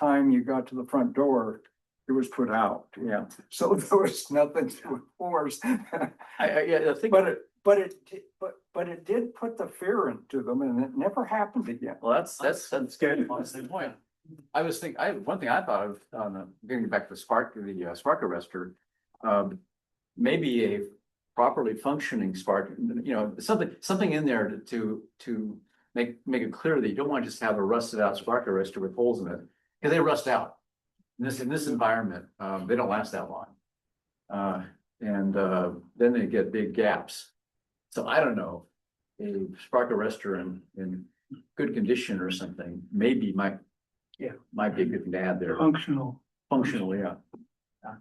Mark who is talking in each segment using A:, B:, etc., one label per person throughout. A: time you got to the front door, it was put out.
B: Yeah,
A: So there was nothing to enforce.
B: I, I, yeah, I think,
A: But it, but it, di- but, but it did put the fear into them and it never happened again.
B: well, that's, that's, that's
A: good.
B: good, honestly, point. I was thinking, I, one thing I thought of, on the, getting back to the spark, the uh, spark arrestor. Um, maybe a properly functioning spark, you know, something, something in there to- to, to. Make, make it clear that you don't want to just have a rusted out spark arrestor with holes in it, because they rust out. In this, in this environment, um, they don't last that long. Uh, and, uh, then they get big gaps. So I don't know, a spark arrestor in, in good condition or something, maybe might.
C: Yeah. Um,
B: Might be a good thing to add there,
C: functional.
B: functionally, yeah.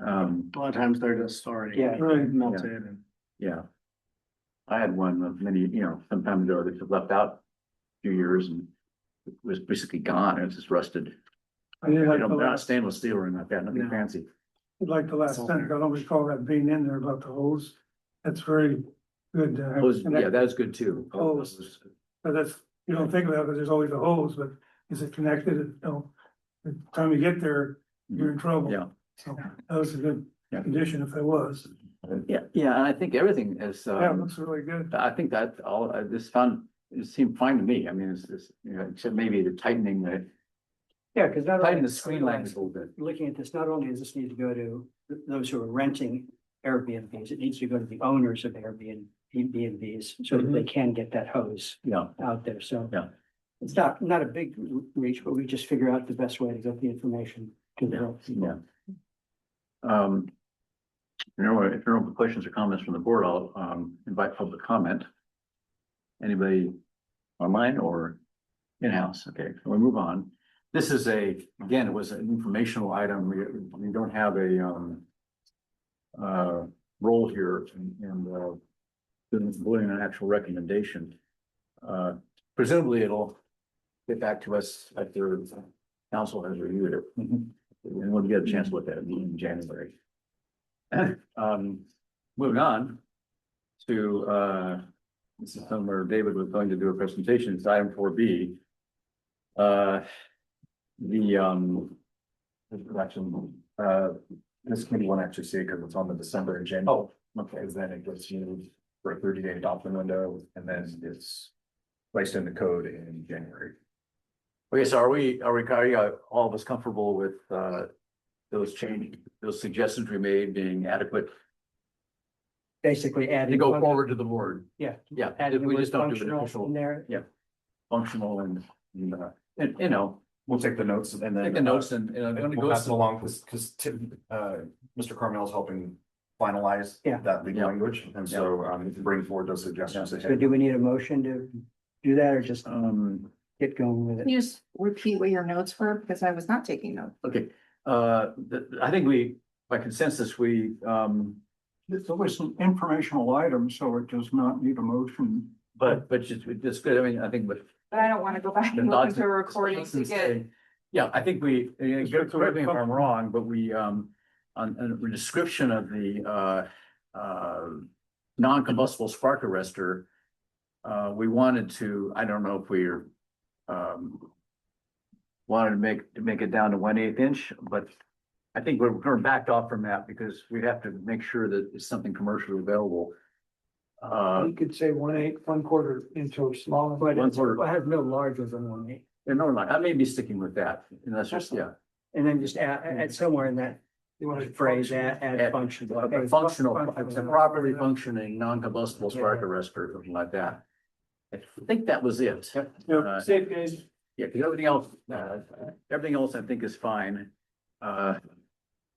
B: Um,
C: A lot of times they're just sorry.
A: Yeah.
C: Right. Melted and.
B: yeah. I had one of many, you know, some time ago that was left out a few years and it was basically gone, and it was just rusted.
D: I did
B: You
D: like
B: know,
D: the
B: not
D: last,
B: stainless steel or anything like that, nothing
C: No.
B: fancy.
D: like the last sentence, I don't recall that being in there about the hose. That's very good to have.
B: Those, yeah,
D: connect-
B: that is good too.
D: Oh, it was- But that's, you don't think about it, 'cause there's always a hose, but is it connected? No. By the time you get there, you're in
C: Mm-hmm.
D: trouble.
B: Yeah.
D: So that was a good
B: Yeah.
D: condition if it was.
B: Yeah, yeah, and I think everything is,
D: Yeah, it
B: um,
D: looks really good.
B: I think that all, I just found, it seemed fine to me. I mean, it's, it's, you know, except maybe the tightening, the
C: Yeah, because not
B: tightening the screen language a little bit.
C: looking at this, not only does this need to go to th- those who are renting Airbnbs, it needs to go to the owners of Airbnb, Airbnbs, so that they can get that hose
B: Yeah,
C: out there, so.
B: Mm-hmm. Yeah.
C: It's not, not a big r- reach, but we just figure out the best way to get the information to the real
B: yeah.
C: people.
B: Um, if there are, if there are no questions or comments from the board, I'll, um, invite public comment. Anybody online or in-house? Okay, so we move on. This is a, again, it was an informational item. We, we don't have a, um, uh, role here and, and, uh, didn't bring an actual recommendation. Uh, presumably it'll get back to us after council has reviewed it. And we'll get a chance to look at it in January. Um, moving on to, uh, this is somewhere David was going to do a presentation, it's item four B. Uh, the, um,
E: This is actually, uh, this committee won't actually see it because it's on the December agenda.
B: oh, okay,
E: Because then it gets used for a thirty day adoption window and then it's placed in the code in January.
B: okay, so are we, are we, are you uh, all of us comfortable with, uh, those change, those suggestions we made being adequate
C: Basically
B: to
C: adding.
B: go
C: func-
B: forward to the board?
C: Yeah.
B: Yeah,
C: Adding
B: we
C: the
B: just
C: word
B: don't do an
C: functional in
B: official,
C: there.
B: yeah. functional and, and, uh, and, you know,
E: We'll take the notes and then.
B: take the notes and, uh, and it only
E: We'll
B: goes
E: pass it
B: to
E: along because, because Tim, uh, Mr. Carmel's helping finalize
C: Yeah.
E: that legal
B: Yeah.
E: language. And so, um, you can bring forward those suggestions.
C: So
E: ahead.
C: do we need a motion to do that or just
B: Um,
C: get going with it?
F: Can you just repeat what your notes were? Because I was not taking notes.
B: Okay, uh, th- th- I think we, by consensus, we, um,
A: It's always an informational item, so it does not need a motion.
B: but, but just, it's good, I mean, I think, but.
F: But I don't want to go back
B: the
F: and listen
B: nonsense-
F: to a recording to get,
B: Yeah, I think we, uh,
D: Just get to
B: correct me if
D: it.
B: I'm wrong, but we, um, on, on a description of the, uh, uh, non-combustible spark arrestor, uh, we wanted to, I don't know if we're, um, wanted to make, to make it down to one eighth inch, but I think we're, we're backed off from that because we have to make sure that it's something commercially available. Uh,
C: You could say one eighth, one quarter inch or smaller. But
B: One
C: it's-
B: quarter.
C: I have no larger than one eighth.
B: and no, I may be sticking with that, and that's just, yeah.
C: And then just add, add somewhere in that
D: You want to
C: phrase, add, add
B: Add-
C: function.
B: a- a uh, Functional, it's a properly functioning, non-combustible spark arrestor, something like that. I think that was it. Uh,
C: Safe guys.
B: Yeah, because everything else, uh, everything else I think is fine. Uh,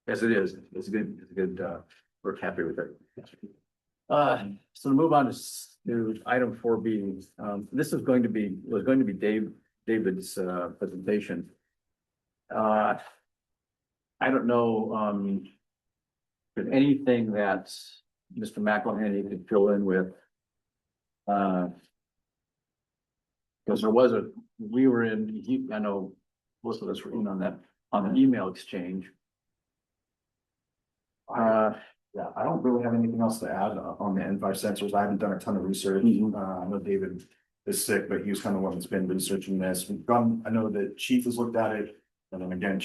B: as it is, it's a good, it's a good, uh, we're happy with it. Uh, so to move on to, s- to item four B, um, this is going to be, was going to be Dave, David's, uh, presentation. Uh, I don't know, um, if anything that Mr. McElhenney could fill in with. Uh, because there was a, we were in, he- I know most of us were in on that, on an email exchange. Uh,
E: Yeah, I don't really have anything else to add uh, on the N five sensors. I haven't done a ton of research.
B: Mhm.
E: Uh, I know David is sick, but he was kind of one that's been researching this. We've gone, I know that Chief has looked at it. And then again,